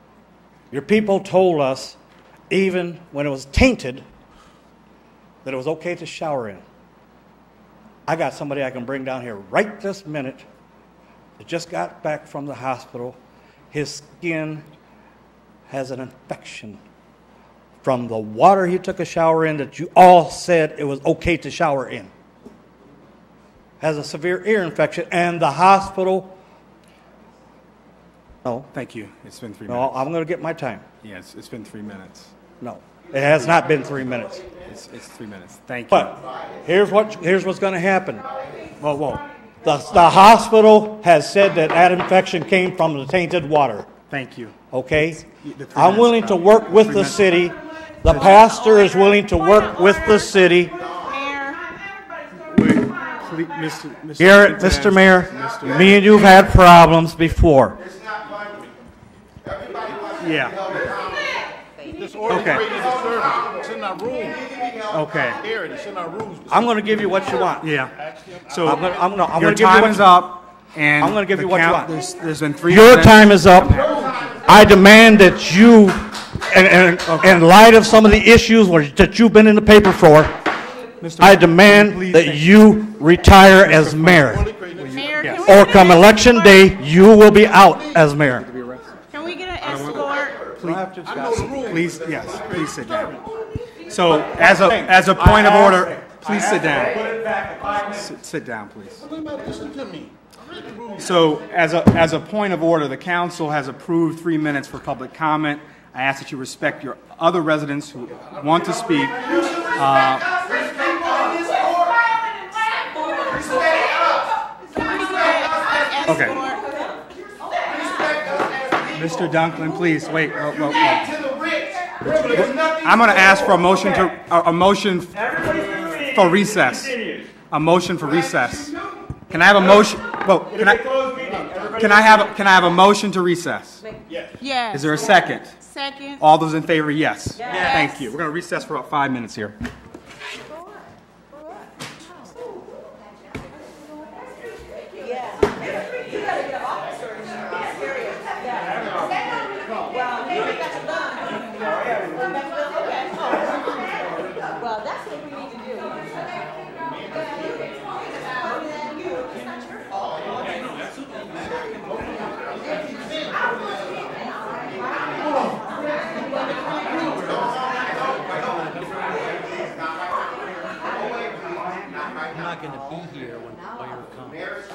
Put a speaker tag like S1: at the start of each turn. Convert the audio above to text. S1: Your people told us, even when it was tainted, that it was okay to shower in. I got somebody I can bring down here right this minute that just got back from the hospital. His skin has an infection from the water he took a shower in that you all said it was okay to shower in. Has a severe ear infection, and the hospital. No,
S2: Thank you. It's been three
S1: no,
S2: minutes.
S1: I'm going to get my time.
S2: Yes, it's been three minutes.
S1: No, it has not been three minutes.
S2: It's, it's three minutes. Thank you.
S1: But here's what here's what's going to happen.
S2: Whoa, whoa.
S1: The, the hospital has said that that infection came from the tainted water.
S2: Thank you.
S1: Okay,
S2: The three
S1: I'm willing
S2: minutes,
S1: to
S2: Brown.
S1: work with
S2: Three
S1: the
S2: minutes.
S1: city. The pastor is willing to work with the city.
S2: Please, Mr. Mr.
S1: Garrett, Mr. Mayor, me and you've had problems before.
S2: Yeah.
S3: This order
S2: Okay.
S3: is disturbing. It's in our rules.
S2: Okay.
S3: Garrett, it's in our rules.
S1: I'm going to give you what you want.
S2: Yeah. So
S1: I'm going to, I'm going to, I'm
S2: your
S1: going to give you
S2: time
S1: what
S2: is
S1: you
S2: up, and
S1: I'm gonna give
S2: the
S1: you what you want.
S2: count- There's, there's been three.
S1: Your
S2: minutes.
S1: time is up. I demand that you, and, and, in light of some of the issues where- that you've been in the paper for,
S2: Mr.
S1: I
S2: Mayor,
S1: demand
S2: please
S1: that
S2: thank-
S1: you retire as mayor.
S4: Mayor, can we
S1: Or
S4: get
S1: come
S4: an
S1: election
S4: escort?
S1: day, you will be out as mayor.
S4: Can we get an escort?
S2: Please, please, yes. Please sit down. So as a as a point of order, please sit down. Sit, sit down, please.
S3: Everybody listen to me. I read the rules.
S2: So as a, as a point of order, the council has approved three minutes for public comment. I ask that you respect your other residents who want to speak.
S4: Can we get an
S2: Okay.
S4: escort?
S2: Mr. Dunklin, please, wait. whoa, whoa, whoa. I'm going to ask for a motion to, a- a motion for recess. A motion for recess. Can I have a motion, whoa, can I, can I have, a- can I have a motion to recess?
S4: Yes.
S2: Is there a second?
S4: Second.
S2: All those in favor, yes. Thank you. We're going to recess for about five minutes here.